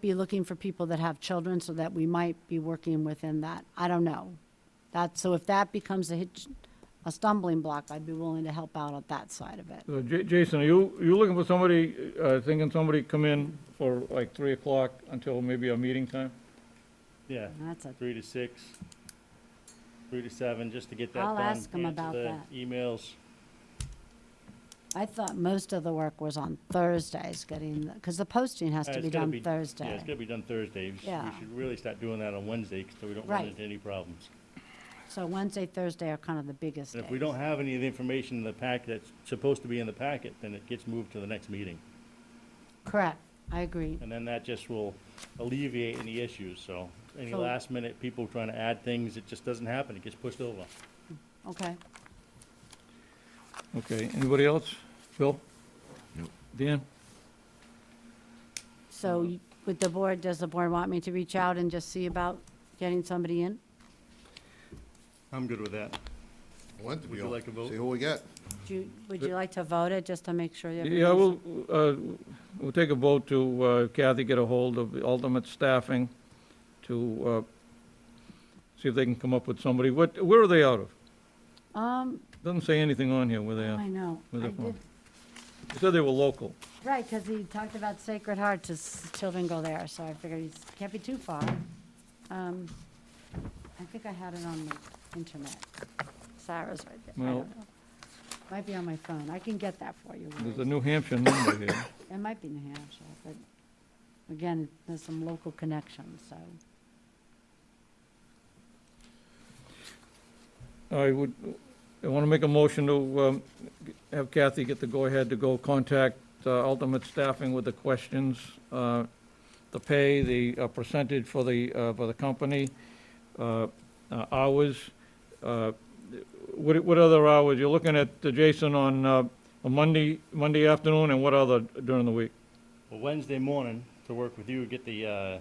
be looking for people that have children so that we might be working within that. I don't know. That, so if that becomes a hitch, a stumbling block, I'd be willing to help out on that side of it. So J- Jason, are you, you looking for somebody, uh, thinking somebody come in for like three o'clock until maybe a meeting time? Yeah, That's a, three to six, three to seven, just to get that I'll done. ask 'em answer about the that. Emails, I thought most of the work was on Thursdays getting, because the posting has Uh, to it's be gotta done be- yeah, it's Thursday. gotta be done Thursday. We s- Yeah. We should really start doing that on Wednesday, 'cause so we don't run Right. into any problems. So Wednesday, Thursday are kind of the biggest And if we days. don't have any of the information in the packet that's supposed to be in the packet, then it gets moved to the next meeting. Correct, I agree. And then that just will alleviate any issues, so any So- last minute people trying to add things, it just doesn't happen, it gets pushed over. Okay. Okay, anybody else? Bill? Dan? Uh-huh. So you- with the board, does the board want me to reach out and just see about getting somebody in? I'm good with that. Want to Would be you on. like a vote? See who we got. Do, you- would you like to vote it, just to make sure? Yeah, everybody's- we'll, uh, we'll take a vote to uh, Kathy, get a hold of the ultimate staffing to, uh, see if they can come up with somebody. What, where are they out of? Um, Doesn't say anything on here where they I are. know. Where's I it from? did- It said they were local. Right, because he talked about Sacred Heart, his children go there, so I figured he can't be too far. Um, I think I had it on the internet. Sarah's right there. I Well- don't know. Might be on my phone. I can get that for you. Lori. There's a New Hampshire number here. It might be New Hampshire, but again, there's some local connections, so. I would, I want to make a motion to um, have Kathy get the go-ahead to go contact uh, Ultimate Staffing with the questions, uh, the pay, the uh, percentage for the, uh, for the company, uh, uh, hours. uh, What, what other hours? You're looking at uh, Jason on uh, a Monday, Monday afternoon, and what other during the week? Well, Wednesday morning, to work with you, get the, uh,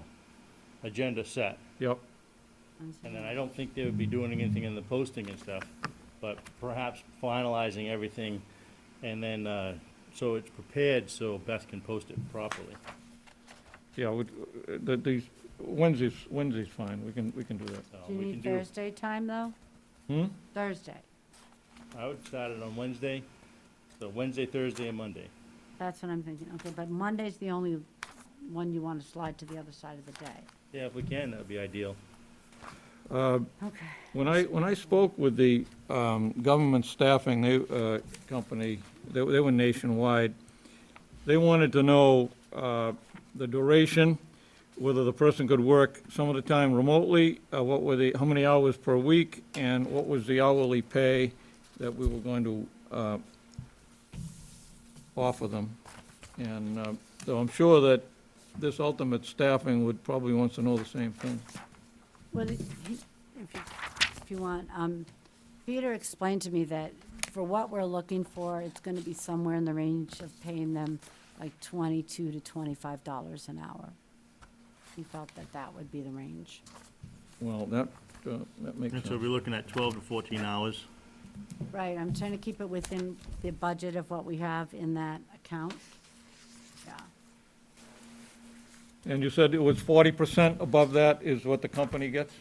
agenda set. Yep, And then I don't think they would be doing anything in the posting and stuff, but perhaps finalizing everything and then, uh, so it's prepared so Beth can post it properly. yeah, with, uh, the, these, Wednesday's, Wednesday's fine, we can, we can do that. So Do you we can need do, Thursday time, though? Hmm? Thursday. I would start it on Wednesday, so Wednesday, Thursday, and Monday. That's what I'm thinking. Okay, but Monday's the only one you want to slide to the other side of the day. Yeah, if we can, that'd be ideal. Okay. When I, when I spoke with the um, government staffing they, uh, company, they they were nationwide, they wanted to know uh, the duration, whether the person could work some of the time remotely, uh, what were the, how many hours per week, and what was the hourly pay that we were going to uh, offer them. And uh, so I'm sure that this ultimate staffing would probably wants to know the same thing. Well, if you, if you want, um, Peter explained to me that for what we're looking for, it's gonna be somewhere in the range of paying them like twenty-two to twenty-five dollars an hour. He felt that that would be the range. Well, that, uh, that makes sense. And so we're looking at twelve to fourteen hours. Right, I'm trying to keep it within the budget of what we have in that account. Yeah, And you said it was forty percent above that is what the company gets?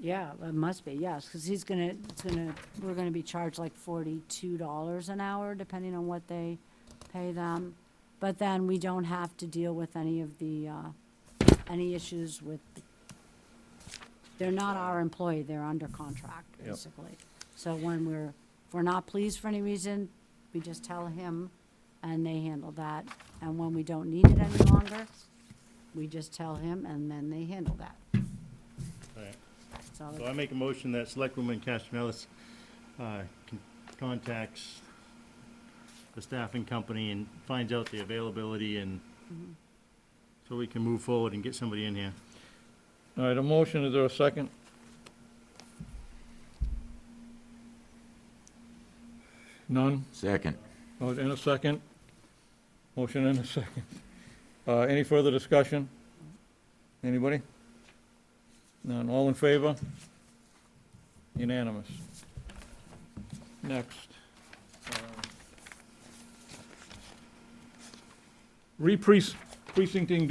yeah, it must be, yes, because he's gonna, it's gonna, we're gonna be charged like forty-two dollars an hour, depending on what they pay them. But then we don't have to deal with any of the, uh, any issues with, they're not our employee, they're under contract, Yep. basically. So when we're, if we're not pleased for any reason, we just tell him, and they handle that. And when we don't need it any longer, we just tell him, and then they handle that. Right. So So I make a motion that Selectwoman Castellalis, uh, con- contacts the staffing company and finds out the availability and so we can move forward and get somebody in here. All right, a motion, is there a second? None? Second. Oh, and a second? Motion and a second. Uh, any further discussion? Anybody? None, all in favor? Unanimous. Next. Uh, Repres- precincting